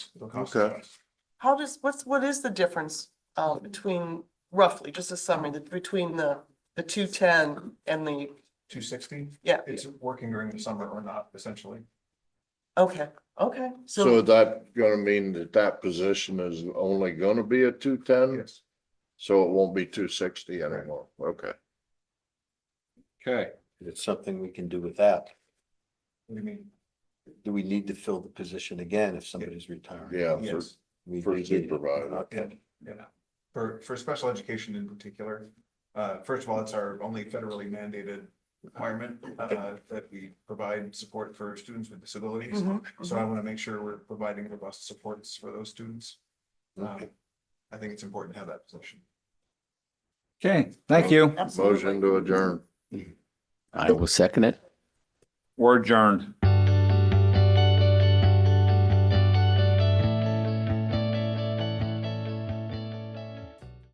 It'll cost Okay. us. How does, what's, what is the difference uh between roughly, just a summary, the- between the, the two ten and the, Two sixty, yeah, it's working during the summer or not, essentially. okay, okay, So so is that gonna mean that that position is only gonna be a two ten? Yes. So it won't be two sixty anymore? Okay. Okay. It's something we can do with that. What do you mean? Do we need to fill the position again if somebody's retiring? Yeah, uh, for- Yes, We- For we did it. supervisor. Okay. and, yeah, for, for special education in particular, uh, first of all, it's our only federally mandated requirement, uh, that we provide support for students with disabilities. Mhm, So I want to make sure we're providing robust supports for those students. Um, Okay. I think it's important to have that position. Okay, thank you. absolutely. Motion to adjourn. I will second it. We're adjourned.